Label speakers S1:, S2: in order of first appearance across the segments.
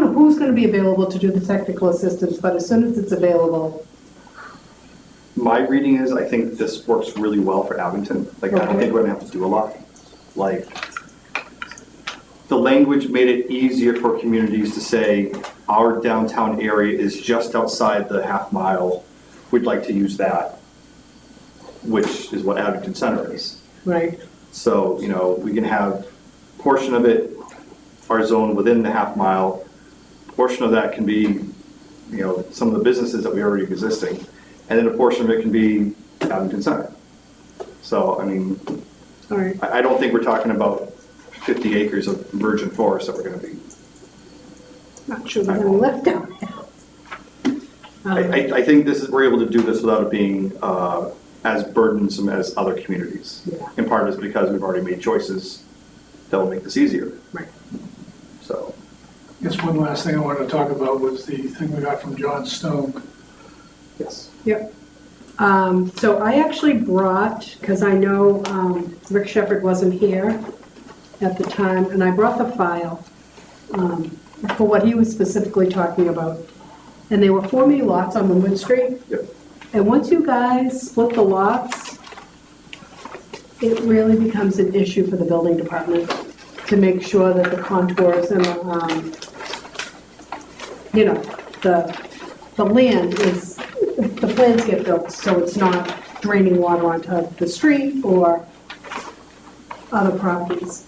S1: who's going to be available to do the technical assistance, but as soon as it's available,
S2: My reading is, I think this works really well for Abington. Like, I don't
S1: Okay.
S2: think we're gonna have to do a lot. Like, the language made it easier for communities to say, our downtown area is just outside the half mile. We'd like to use that, which is what Abington Center is.
S1: right?
S2: So, you know, we can have portion of it, our zone within the half mile. Portion of that can be, you know, some of the businesses that we already existing. And then a portion of it can be Abington Center. So, I mean,
S1: All right,
S2: I, I don't think we're talking about 50 acres of virgin forest that we're going to be.
S1: not sure we're going to let them.
S2: I,
S1: Um,
S2: I, I think this is, we're able to do this without it being, uh, as burdensome as other communities.
S1: Yeah.
S2: In part is because we've already made choices that will make this easier,
S1: Right.
S2: so.
S3: Guess one last thing I wanted to talk about was the thing we got from John Stone.
S2: Yes.
S1: Yep. Um, So I actually brought, because I know um, Rick Shepherd wasn't here at the time, and I brought the file um, for what he was specifically talking about. And there were four me lots on Linwood Street.
S2: Yep.
S1: And once you guys split the lots, it really becomes an issue for the building department to make sure that the contours and, the, um, you know, the, the land is, the plans get built, so it's not draining water onto the street or other properties.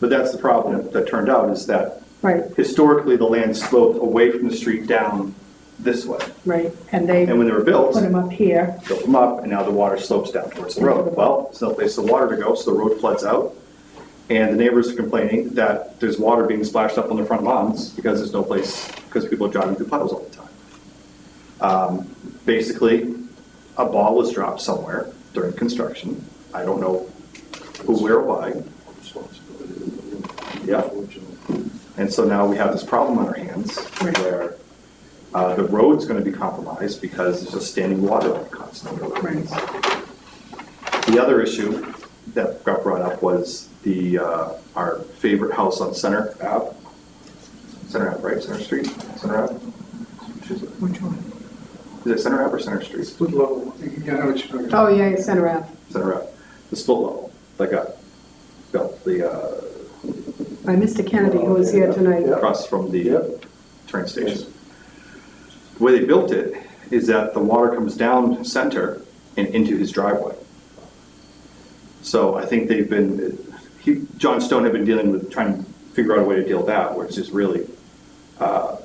S2: But that's the problem that turned out is that
S1: Right,
S2: historically, the land sloped away from the street down this way.
S1: right, and they
S2: And
S1: put
S2: when they were built,
S1: them up here,
S2: built them up, and now the water slopes down towards the road. Well, there's no place for water to go, so the road floods out. And the neighbors are complaining that there's water being splashed up on their front lawns because there's no place, because people are driving through puddles all the time. Um, Basically, a ball was dropped somewhere during construction. I don't know who, where, why. Yeah. And so now we have this problem on our hands
S1: Right.
S2: where uh, the road's going to be compromised because there's just standing water on it constantly.
S1: Right.
S2: The other issue that got brought up was the, uh, our favorite house on Center Ave. Center Ave, right? Center Street? Center Ave?
S3: Which one?
S2: Is it Center Ave or Center Street?
S3: Split level. Yeah, I know what you're talking about.
S1: oh, yeah, yeah, center out.
S2: Center Ave. The split level that got built, the, uh,
S1: by Mr. Kennedy, who was here tonight.
S2: across from the
S4: Yep.
S2: train station. The way they built it is that the water comes down center and into his driveway. So I think they've been, he, John Stone had been dealing with, trying to figure out a way to deal with that, which is really, uh,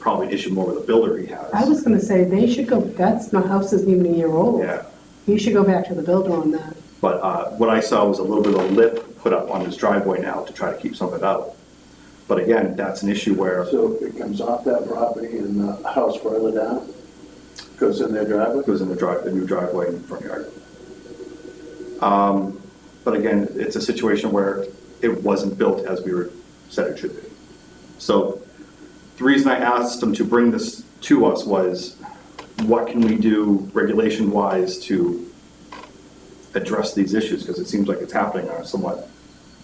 S2: probably an issue more with the builder he has.
S1: I was gonna say, they should go, that's, my house isn't even a year old.
S2: Yeah,
S1: You should go back to the builder on that.
S2: but, uh, what I saw was a little bit of a lip put up on his driveway now to try to keep some of it out. But again, that's an issue where it
S4: So it comes off that property and the house further down, goes in their driveway?
S2: goes in the drive, the new driveway in the front yard. Um, But again, it's a situation where it wasn't built as we were, said it should be. So the reason I asked them to bring this to us was, what can we do regulation-wise to address these issues? Because it seems like it's happening on a somewhat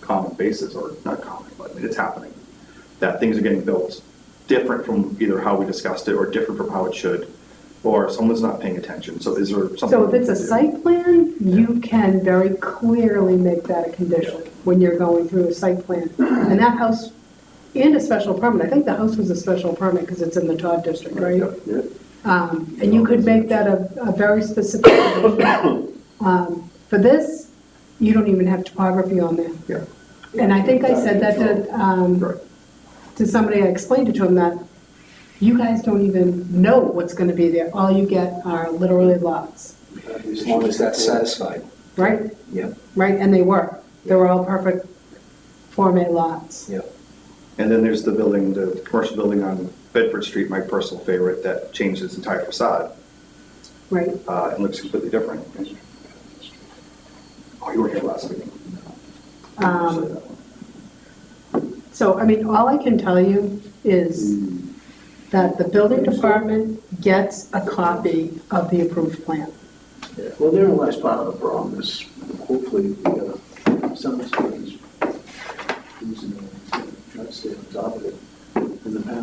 S2: common basis, or not common, but I mean, it's happening. That things are getting built different from either how we discussed it, or different from how it should, or someone's not paying attention, so is there something?
S1: So if
S2: we
S1: it's a
S2: can do?
S1: site plan, you can very clearly make that a condition when you're going through a site plan. And that house, and a special permit, I think the house was a special permit because it's in the Todd district, right?
S2: Yep.
S4: Yeah.
S1: Um, And you could make that a, a very specific condition. Um, For this, you don't even have topography on there.
S2: Yeah,
S1: And I think I said that to, um,
S2: right.
S1: to somebody, I explained it to him that you guys don't even know what's gonna be there. All you get are literally lots,
S5: As long as that's satisfied.
S1: right?
S5: Yep.
S1: Right, and they were. They were all perfect Form A lots.
S5: Yep.
S2: And then there's the building, the commercial building on Bedford Street, my personal favorite, that changed its entire facade
S1: Right,
S2: uh, and looks completely different. Oh, you were here last week.
S1: Um, so, I mean, all I can tell you is that the building department gets a copy of the approved plan.
S4: Yeah. Well, therein lies part of the problem is hopefully we got a- some of these reason to try to stay on top of it in the past.